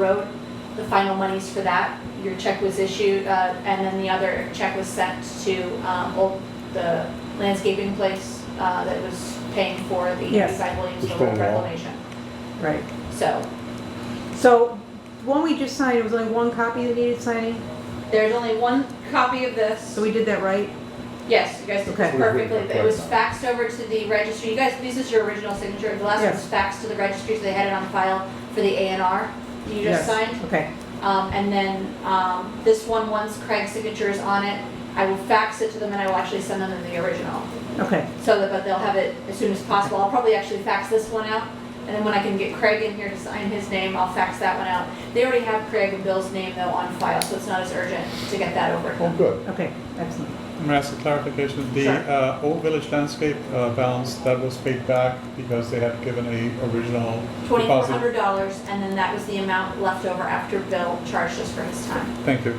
road. The final monies for that, your check was issued, uh, and then the other check was sent to, um, old, the landscaping place, uh, that was paying for the Yes. East Side The Williamsville stone wall. reclamation. Right. So, So, one we just signed, it was only one copy that needed signing, there's only one copy of this. so we did that right? Yes, you guys did Okay. this perfectly, it was faxed over to the registry, you guys, this is your original signature, the last one was faxed to the registry, so they had it on file for the A and R. You just Yes. signed? Okay, Um, and then, um, this one, once Craig's signature is on it, I will fax it to them and I will actually send them the original. okay, So that, but they'll have it as soon as possible. I'll probably actually fax this one out. And then when I can get Craig in here to sign his name, I'll fax that one out. They already have Craig and Bill's name though on file, so it's not as urgent to get that over to Oh, them. good. okay, excellent. I'm gonna ask a clarification, the Sure. uh, Old Village Landscape uh, balance, that was paid back because they had given a original Twenty-four deposit? hundred dollars and then that was the amount left over after Bill charged us for his time. Thank you.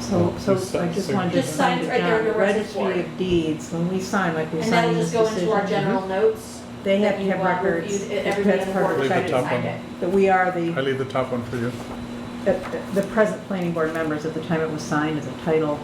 So, so Just I sign- just wanted to. Just sign remind right there in the John, reservoir. Registry of deeds, when we sign, like we And sign that'll these just go into our decisions, mhm. general notes. mm-hmm. They that have to you have all records, reviewed. It- Everybody in that's the part board of the Leave the decided to title, sign top one. it. that we are I the, leave the top one for you. that the present planning board members at the time it was signed as a title.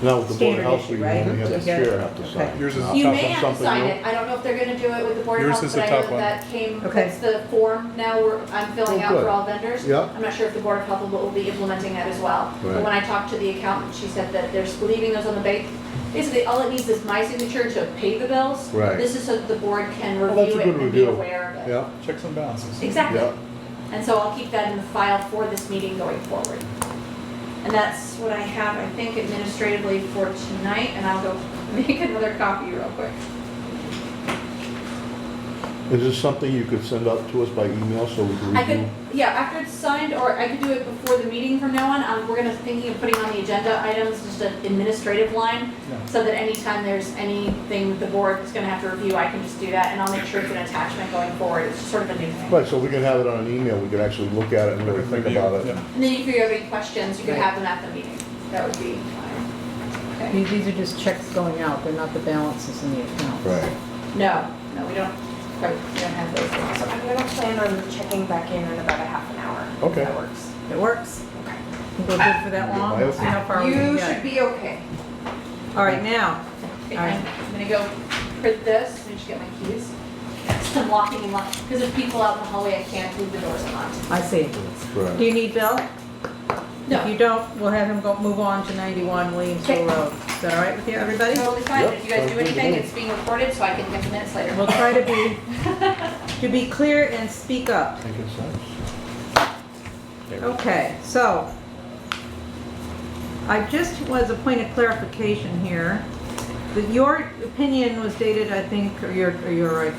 Now, with the Board Standard of Health, issue, we right? only have the Okay. chair have to sign. Uh, Yours is Now, the You top may on have to something sign new? it, I don't know if they're gonna do it with the board of Yours health, is but the I know top one. that that came, Okay. that's the form now we're, I'm filling Oh, out for good. all vendors. Yeah. I'm not sure if the board of health will, will be implementing that as well. But Right. when I talked to the accountant, she said that they're leaving those on the bank. Basically, all it needs is my signature to pay the bills. Right. This is so that the board can Well, that's review a it good and be review. aware of it. Yeah, Checks and balances. Exactly. yeah. And so I'll keep that in the file for this meeting going forward. And that's what I have, I think administratively for tonight, and I'll go make another copy real quick. Is this something you could send out to us by email so we can I could, review? yeah, after it's signed, or I could do it before the meeting from now on, um, we're gonna, thinking of putting on the agenda items, just an administrative line, Yeah. so that anytime there's anything the board is gonna have to review, I can just do that, and I'll make sure it's an attachment going forward, it's sort of a new thing. Right, so we can have it on an email, we can actually look at it and really think Review, about it. yeah. And then if you have any questions, you can Right. have them at the meeting, that would be fine. Okay. These these are just checks going out, they're not the balances in the accounts. Right. No, no, we don't, quite- we don't have those things. So I'm gonna plan on checking back in in about a half an hour. Okay. If that works. It works. We'll go good for that long, we'll see how far we can You get. should be okay. it. All right, now, Okay, I'm I'm gonna go print this, let me just get my keys. I'm walking in, because there's people out in the hallway, I can't leave the doors unlocked. I see. Do Right. you need Bill? If No, you don't, we'll have him go, move on to Okay. 91 Williamsville Road. Is that all right with you, everybody? totally fine, Yep, if you guys sounds do good to anything, me. it's being recorded, so I can get the minutes later. We'll try to be, to be clear and speak up. Making sense. Okay, so I just was a point of clarification here. That your opinion was dated, I think, or your, or your, I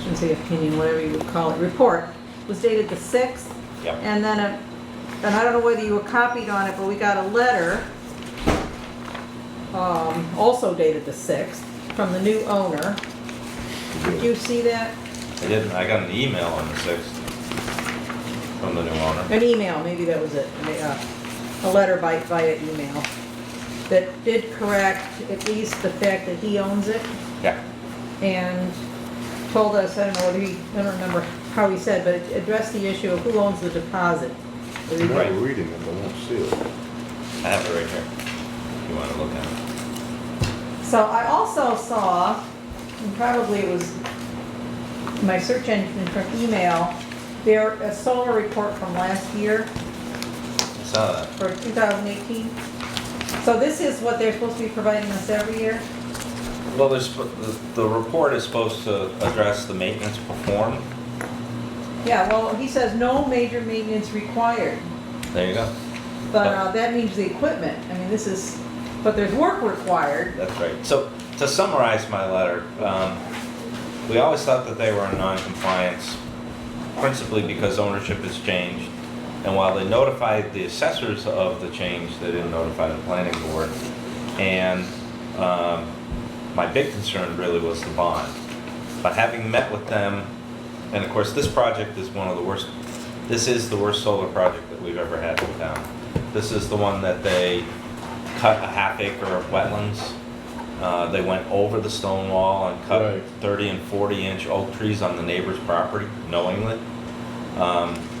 shouldn't say opinion, whatever you would call it, report was dated the sixth. Yep. And then a, and I don't know whether you were copied on it, but we got a letter, um, also dated the sixth, from the new owner. Did you see that? I didn't, I got an email on the sixth from the new owner. an email, maybe that was it, a, uh, a letter by, via email, that did correct at least the fact that he owns it Yeah. and told us, I don't know whether he, I don't remember how he said, but it addressed the issue of who owns the deposit. I remember reading it, but I don't see it. I have it right here. if You wanna look at it? So I also saw, and probably it was my search engine from email, there, a solar report from last year, I saw that. for 2018. So this is what they're supposed to be providing us every year? Well, there's, sp- the, the report is supposed to address the maintenance performed. Yeah, well, he says no major maintenance required, There you go. but uh, that means the equipment, I mean, this is, but there's work required. That's right. So to summarize my letter, um, we always thought that they were in non-compliance principally because ownership has changed. And while they notified the assessors of the change, they didn't notify the planning board. And um, my big concern really was the bond. But having met with them, and of course, this project is one of the worst, this is the worst solar project that we've ever had in town. This is the one that they cut a half acre of wetlands. Uh, They went over the stone wall and cut Right. 30 and 40 inch oak trees on the neighbor's property knowingly. Um,